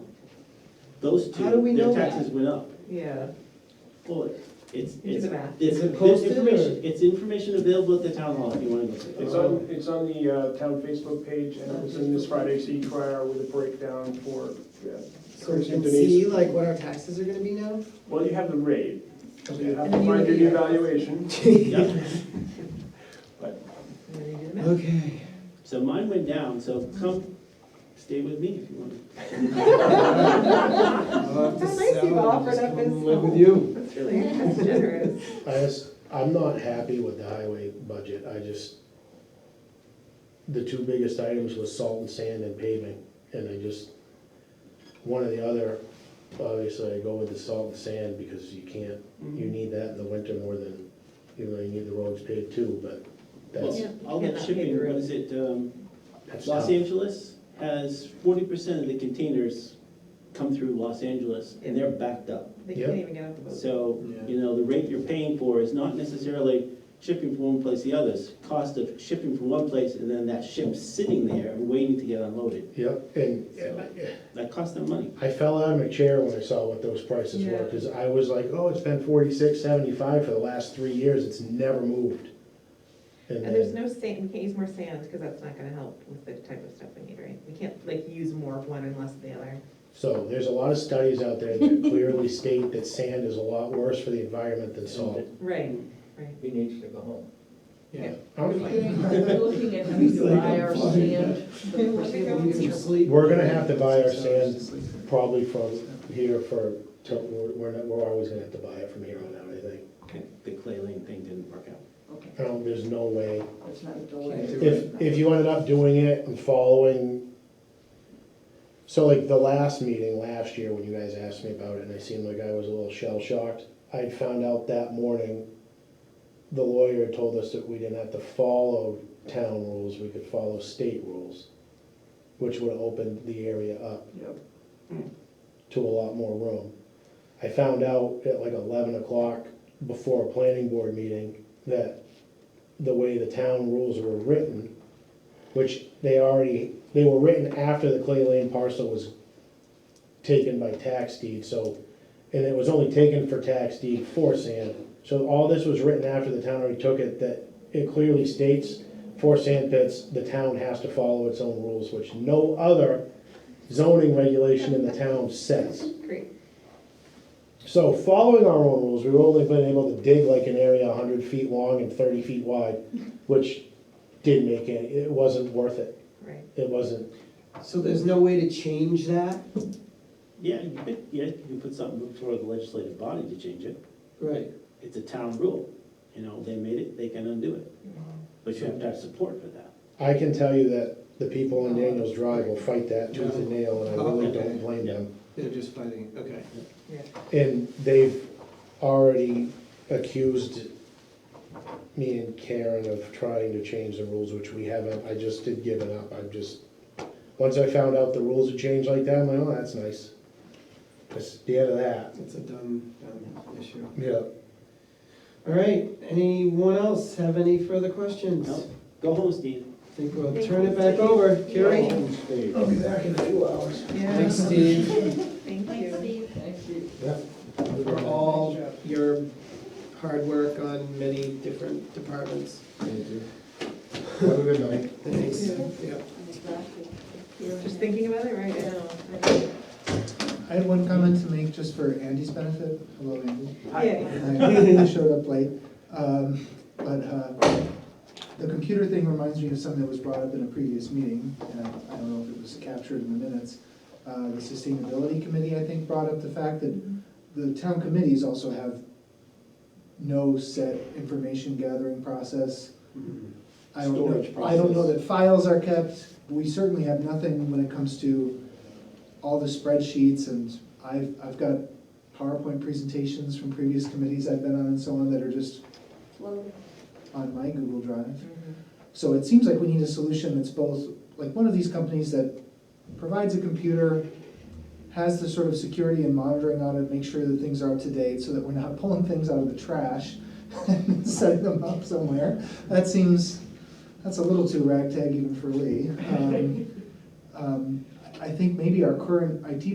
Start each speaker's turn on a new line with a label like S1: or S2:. S1: Those
S2: How do we
S1: two, their
S2: know that?
S1: taxes went up.
S2: Yeah,
S1: Well, it's,
S2: You
S1: it's,
S2: do the math.
S1: it's,
S2: Is it
S1: there's
S2: posted,
S1: information,
S2: or-
S1: it's information available at the town hall if you wanna go see it.
S3: It's on, it's on the uh, town Facebook page, and it was in this Friday's e-crier with a breakdown for, yeah.
S2: so we can
S3: Denise.
S2: see like what our taxes are gonna be now?
S3: well, you have the rate, so you have
S2: And
S3: to
S2: then you
S3: find
S2: do
S3: your new
S2: the-
S3: valuation.
S1: Yeah.
S2: And then you do the math.
S4: Okay.
S1: So mine went down, so come, stay with me if you want.
S4: I'll have to
S2: How nice
S4: sell
S2: you've
S4: it and
S2: offered
S4: just
S2: up
S4: come
S2: this
S4: Live with
S2: home.
S4: you.
S2: That's really that's generous.
S5: I just, I'm not happy with the highway budget, I just, the two biggest items was salt and sand and paving, and I just, one or the other, obviously I go with the salt and sand because you can't, you need that in the winter more than, you know, you need the roads paved too, but that's,
S1: Well, all
S2: Yeah,
S1: that
S2: not
S1: shipping,
S2: paper.
S1: what is it, um,
S5: that's
S1: Los
S5: tough.
S1: Angeles has forty percent of the containers come through Los Angeles and they're backed up.
S2: They can't even get off the boat.
S1: So, you know, the rate you're paying for is not necessarily shipping from one place to the others. Cost of shipping from one place and then that ship sitting there and waiting to get unloaded.
S5: Yep, and, and
S1: That costs them money.
S5: I fell out of my chair when I saw what those prices were,
S2: Yeah.
S5: because I was like, oh, it's been forty-six, seventy-five for the last three years, it's never moved. And
S2: And there's
S5: then-
S2: no sand, we can't use more sand, because that's not gonna help with the type of stuff we need, right? We can't like use more of one and less of the other.
S5: So there's a lot of studies out there that clearly state that sand is a lot worse for the environment than salt.
S2: Right.
S6: He needs to go home.
S4: Yeah.
S5: I'm fine.
S7: We're looking at having to buy our sand for the foreseeable future.
S5: We're gonna have to buy our sand probably from here for, till- we're, we're not- we're always gonna have to buy it from here on out, I think.
S1: The clay lane thing didn't work out.
S7: Okay,
S5: I don't, there's no way.
S7: that's not a delay.
S5: If, if you ended up doing it and following, so like the last meeting last year when you guys asked me about it and I seemed like I was a little shell shocked, I found out that morning, the lawyer told us that we didn't have to follow town rules, we could follow state rules, which would open the area up
S7: Yep.
S5: to a lot more room. I found out at like eleven o'clock before a planning board meeting that the way the town rules were written, which they already, they were written after the Clay Lane parcel was taken by tax deed, so, and it was only taken for tax deed for sand. So all this was written after the town already took it, that it clearly states for sand pits, the town has to follow its own rules, which no other zoning regulation in the town says.
S2: Great.
S5: So following our own rules, we've only been able to dig like an area hundred feet long and thirty feet wide, which didn't make any, it wasn't worth it.
S2: Right.
S5: It wasn't,
S4: So there's no way to change that?
S1: Yeah, you could, yeah, you can put something before the legislative body to change it.
S4: Right.
S1: It's a town rule, you know, they made it, they can undo it. But you have to have support for that.
S5: I can tell you that the people on Daniels Drive will fight that tooth and nail, and I really don't blame them.
S4: They're just fighting, okay.
S5: And they've already accused me and Karen of trying to change the rules, which we haven't, I just did give it up, I just, once I found out the rules had changed like that, I'm like, oh, that's nice. That's the end of that.
S4: It's a done, done issue.
S5: Yeah.
S4: All right, anyone else have any further questions?
S1: No. Go home, Steve.
S4: I think we'll turn it back over. Carrie?
S6: Steve.
S3: I'll be back in a few hours.
S4: Thanks, Steve,
S2: Thank
S7: Thanks,
S2: you.
S7: Steve. Thanks, Steve.
S4: for all your hard work on many different departments.
S5: Have a good night.
S4: Thanks.
S2: Yeah.
S4: Yep.
S2: Just thinking about it right now.
S8: I had one comment to make just for Andy's benefit. Hello, Andy.
S2: Yeah.
S8: I showed up late. Um, But uh, the computer thing reminds me of something that was brought up in a previous meeting, and I don't know if it was captured in the minutes. Uh, The Sustainability Committee, I think, brought up the fact that the town committees also have no set information gathering process. I don't know,
S4: Storage
S8: I don't know
S4: process.
S8: that files are kept. We certainly have nothing when it comes to all the spreadsheets and I've, I've got PowerPoint presentations from previous committees I've been on and so on that are just
S7: Well,
S8: on my Google Drive.
S2: Mm-hmm.
S8: So it seems like we need a solution that's both, like one of these companies that provides a computer, has the sort of security and monitoring on it, make sure that things are up to date so that we're not pulling things out of the trash and setting them up somewhere. That seems, that's a little too ragtag even for Lee. Um, um, I I think maybe our current IT